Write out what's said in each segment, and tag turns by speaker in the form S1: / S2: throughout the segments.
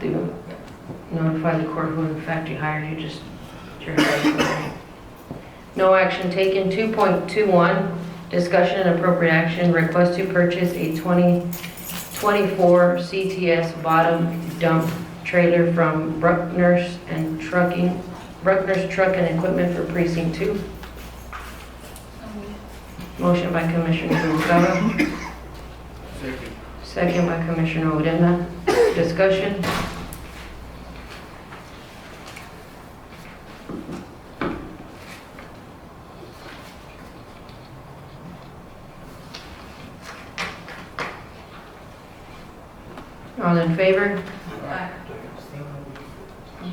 S1: they would notify the court who in fact you hired, you just, you're hired. right? No action taken. 2.21, discussion and appropriate action, request to purchase a 2024 CTS bottom dump trailer from Bruckner's and Trucking, Bruckner's Truck and Equipment for Precinct 2. Motion by Commissioner Noguera,
S2: Second.
S1: second by Commissioner Odena. Discussion? All in favor?
S2: Aye.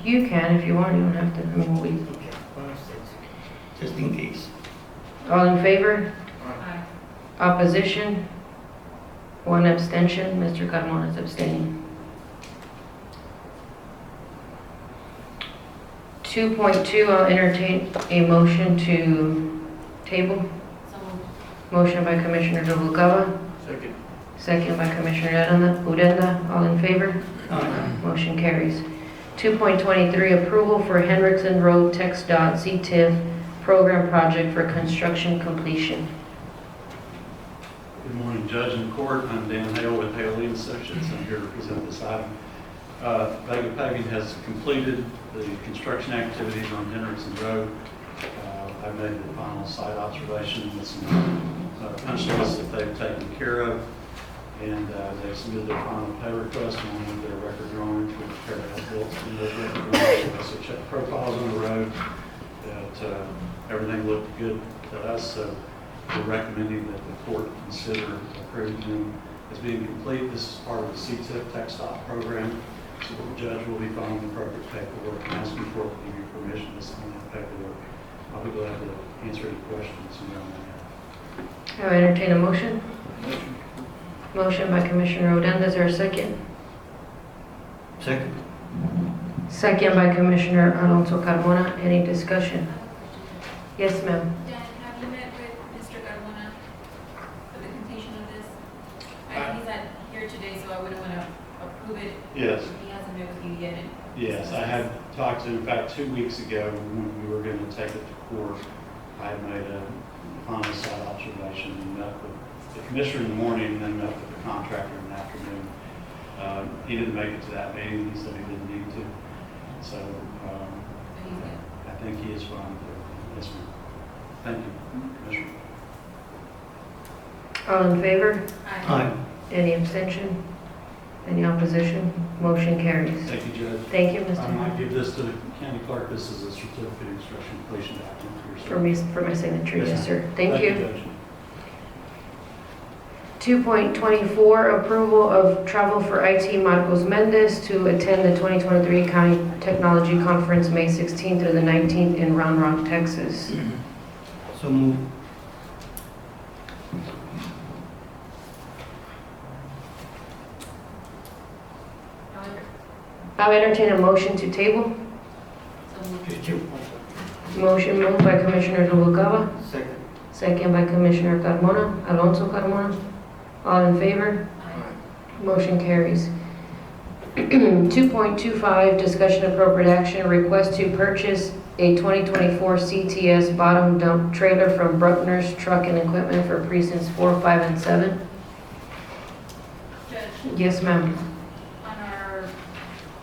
S1: You can if you want, you don't have to, I mean, we,
S2: Okay, five, six. Just in case.
S1: all in favor?
S2: Aye.
S1: Opposition? One abstention, Mr. Carmona is abstaining. 2.2, I'll entertain a motion to table. Motion by Commissioner Noguera,
S2: Second.
S1: second by Commissioner Odena- Odena, all in favor?
S2: Aye.
S1: Motion carries. 2.23, approval for Hendrickson Road Text Dot CTIF program project for construction completion.
S3: Good morning, Judge and Court. I'm Dan Hale with Hale Lead Associates. I'm here to present this item. Uh, Vega Paving has completed the construction activities on Henderson Road. Uh, I made the final site observation with some uh, punch lists that they've taken care of, and uh, they've submitted their final pay request along with their record drawings. We've prepared out bills from those record drawings. We also checked profiles on the road, that uh, everything looked good to us, so we're recommending that the court consider approving them as being complete. This is part of the CTIP Tech Stop program. So the judge will be filing the appropriate paperwork and asking for your permission to sign that paperwork. I'll be glad to answer any questions you may
S1: I entertain a motion.
S2: Motion.
S1: Motion by Commissioner Odena, is there a second?
S2: Second.
S1: Second by Commissioner Alonso Carmona, any discussion? Yes, ma'am.
S4: Dan, have you met with Mr. Carmona for the completion of this? I, he's not here today, so I wouldn't want to approve it.
S3: Yes.
S4: He hasn't met with you yet. and-
S3: Yes, I had talked to, him about two weeks ago, when we were going to take it to court, I had made a final site observation and met with the commissioner in the morning, and then met with the contractor in the afternoon. Uh, He didn't make it to that meeting, he said he didn't need to, so um,
S4: But he's good.
S3: I think he is fine with it. Yes, ma'am. Thank you, Commissioner.
S1: All in favor?
S4: Aye.
S1: Any abstention? Any opposition? Motion carries.
S3: Thank you, Judge.
S1: Thank you,
S3: Um, I might
S1: Mr.
S3: give this to the county clerk, this is a certificate of instruction completion document for
S1: For
S3: yourself.
S1: me, for my signature,
S3: Yes,
S1: yes, sir. Thank you.
S3: Judge.
S1: 2.24, approval of travel for IT Marcos Mendez to attend the 2023 County Technology Conference, May 16th through the 19th in Round Rock, Texas.
S2: So move.
S4: However,
S1: I'll entertain a motion to table.
S4: so moved.
S1: Motion moved by Commissioner Noguera,
S2: Second.
S1: second by Commissioner Carmona, Alonso Carmona. All in favor?
S4: Aye.
S1: Motion carries. 2.25, discussion appropriate action, request to purchase a 2024 CTS bottom dump trailer from Bruckner's Truck and Equipment for precincts 4, 5, and 7.
S4: Judge,
S1: Yes, ma'am.
S4: on our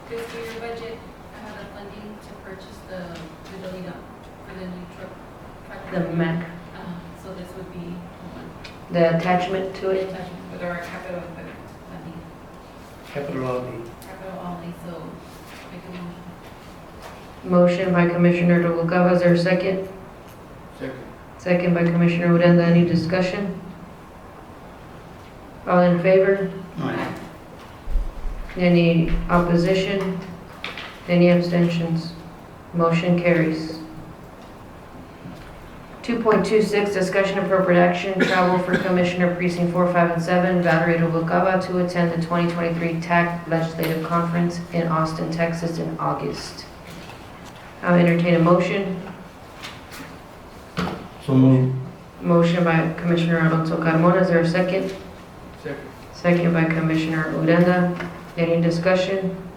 S4: fiscal year budget, I have the funding to purchase the, the building up for the new truck. truck.
S1: The MAC,
S4: Uh, So this would be one.
S1: the attachment to it.
S4: Attachment With our capital equipment funding,
S2: Capital outlay.
S4: capital only, so make a motion.
S1: Motion by Commissioner Noguera, is there a second?
S2: Second.
S1: Second by Commissioner Odena, any discussion? All in favor?
S2: Aye.
S1: Any opposition? Any abstentions? Motion carries. 2.26, discussion appropriate action, travel for Commissioner Precinct 4, 5, and 7, Valerie Rubalcaba, to attend the 2023 TAC Legislative Conference in Austin, Texas, in August. I'll entertain a motion.
S2: So move.
S1: Motion by Commissioner Alonso Carmona, is there a second?
S2: Second.
S1: Second by Commissioner Odena. Any discussion?